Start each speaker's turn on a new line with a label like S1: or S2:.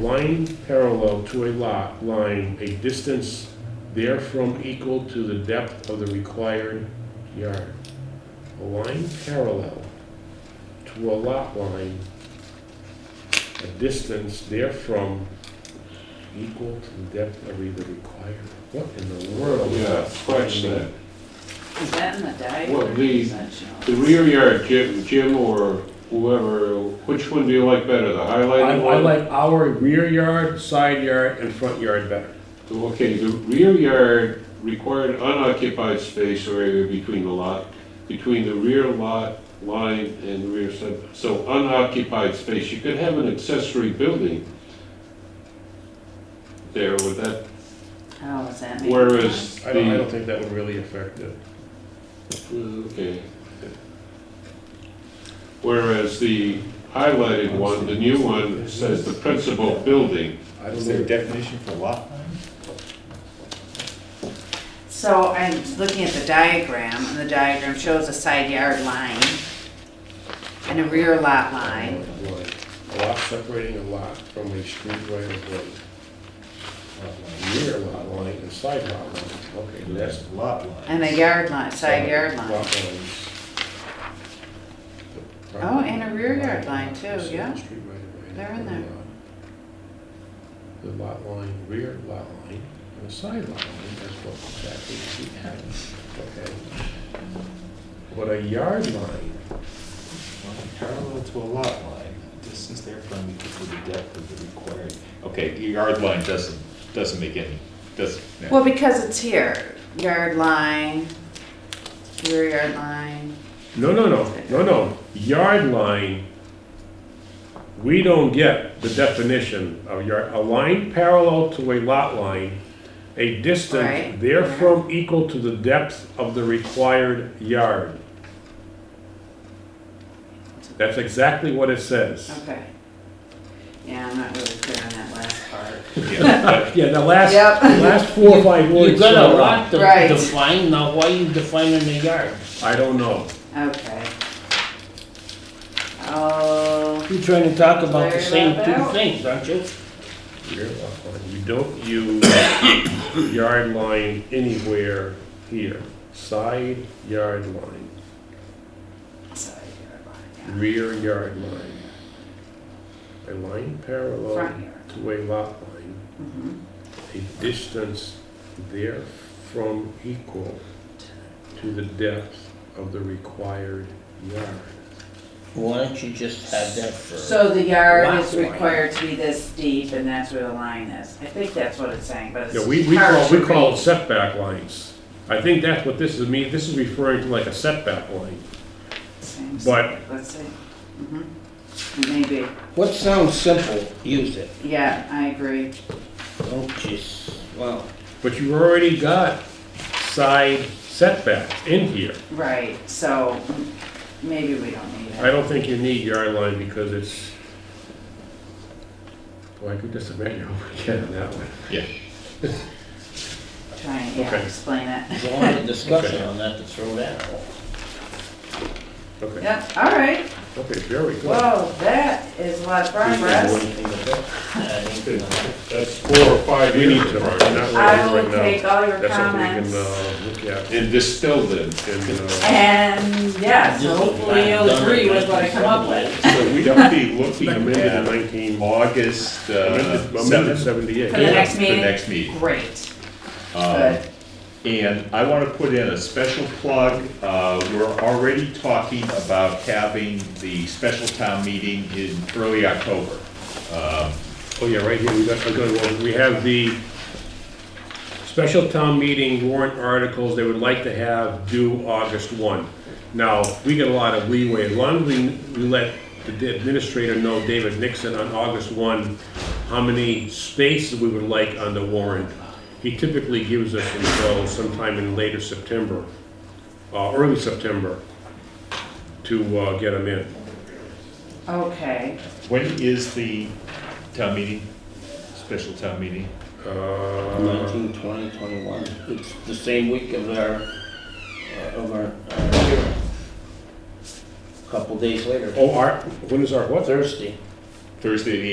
S1: line parallel to a lot line, a distance therefrom equal to the depth of the required yard. A line parallel to a lot line, a distance therefrom equal to the depth of either required. What in the world?
S2: Yeah, scratch that.
S3: Is that in the diagram?
S2: What,
S3: or
S2: the-
S3: is that shown?
S2: The rear yard, Jim, Jim or whoever, which one do you like better, the
S1: I,
S2: highlighted
S1: I
S2: one?
S1: like our rear yard, side yard, and front yard better.
S2: Okay, the rear yard required unoccupied space or area between the lot, between the rear lot line and the rear side. So unoccupied space, you could have an accessory building there with that,
S3: How does Oh, that mean?
S2: whereas
S1: I don't, I
S2: the,
S1: don't think that would really affect it.
S2: okay. Whereas the highlighted one, the new one, says the principal building.
S1: I don't
S4: Is there
S1: know.
S4: a definition for lot line?
S3: So I'm looking at the diagram, and the diagram shows a side yard line and a rear lot line.
S1: Line. A lot separating a lot from a street right of way. Uh, Rear lot line and side lot line, okay, that's.
S4: Lot line.
S3: And a yard line, side yard line.
S1: Lot lines.
S3: Oh, and a rear yard line too, yeah.
S1: Street right of way.
S3: They're in there.
S1: The lot line, rear lot line, and the side lot line, that's what exactly we have, okay? But a yard line,
S4: Line Parallel to a lot line, distance therefrom equal to the depth of the required. Okay, your yard line doesn't, doesn't make any, doesn't. no.
S3: Well, because it's here, yard line, rear yard line.
S1: No, no, no, no, no. Yard line, we don't get the definition of yard, a line parallel to a lot line, a distance
S3: Right.
S1: therefrom equal to the depth of the required yard. That's exactly what it says.
S3: Okay. Yeah, I'm not really clear on that last part.
S4: Yeah, but
S1: Yeah, the last,
S3: Yep.
S1: the last four or five
S5: You
S1: words.
S5: got a
S1: are-
S5: lot to
S3: Right.
S5: define, now why you defining a yard?
S1: I don't know.
S3: Okay. Oh,
S5: You're trying to talk about the
S3: Clear
S5: same
S3: that
S5: two
S3: out.
S5: things, aren't you?
S1: Rear lot line. We don't use yard line anywhere here. Side yard line.
S3: side yard line,
S1: rear yard line. A line
S3: yeah. front
S1: parallel
S3: yard.
S1: to a lot line,
S3: Mhm.
S1: a distance therefrom equal to the depth of the required yard.
S5: Why don't you just have that for,
S3: So the yard
S5: Lot
S3: is
S5: line.
S3: required to be this deep and that's where the line is. I think that's what it's saying, but it's
S1: Yeah, we, we
S3: hard
S1: call,
S3: to
S1: we call
S3: read.
S1: it setback lines. I think that's what this is, me, this is referring to like a setback line.
S3: Same
S1: but-
S3: stuff, Let's see. Mhm. Maybe,
S5: what sounds simple, use it.
S3: yeah, I agree.
S5: Don't just, well,
S1: But you already got side setbacks in here.
S3: Right, so m- maybe we don't need
S1: I
S3: it.
S1: don't think you need yard line because it's, well, I could just imagine over again on that one.
S3: Try and, yeah,
S1: Okay.
S3: explain it.
S5: there's a lot of discussion on that to throw that out.
S1: Okay.
S3: Yep, all right.
S1: Okay, very good.
S3: Whoa, that is a lot of progress.
S5: Anything to do? Uh, anything on that?
S2: that's four or five
S1: We need
S2: years
S1: to,
S2: from
S1: not
S2: now.
S3: I
S1: right
S3: will take
S1: here right now.
S3: all your
S1: That's something we can,
S3: comments.
S1: uh, look at uh,
S2: And distill them.
S1: and,
S3: And, yeah, so hopefully you'll agree with what I come up with.
S1: uh, so we don't be looking amended in
S4: Yeah.
S1: nineteen,
S4: August
S1: amended
S4: uh,
S1: amended
S4: seventh.
S3: For the
S1: seventy-eight.
S3: next
S4: The
S3: meeting?
S4: next meeting.
S3: Great,
S4: Um,
S3: good.
S4: And I want to put in a special plug. Uh, We're already talking about having the special town meeting in early October. Um,
S1: Oh, yeah, right here, we got, a good one. we have the special town meeting warrant articles they would like to have due August one. Now, we get a lot of leeway, as long as we, we let the administrator know, David Nixon, on August one, how many spaces we would like on the warrant. He typically gives us until sometime in later September, uh, early September, to, uh, get them in.
S3: Okay,
S4: When is the town meeting, special town meeting?
S1: Uh,
S5: Nineteen, twenty, twenty-one, it's the same week of our, uh, of our, our hearing. Couple days later,
S1: Oh, our, when is our, what?
S5: Thursday.
S4: Thursday, the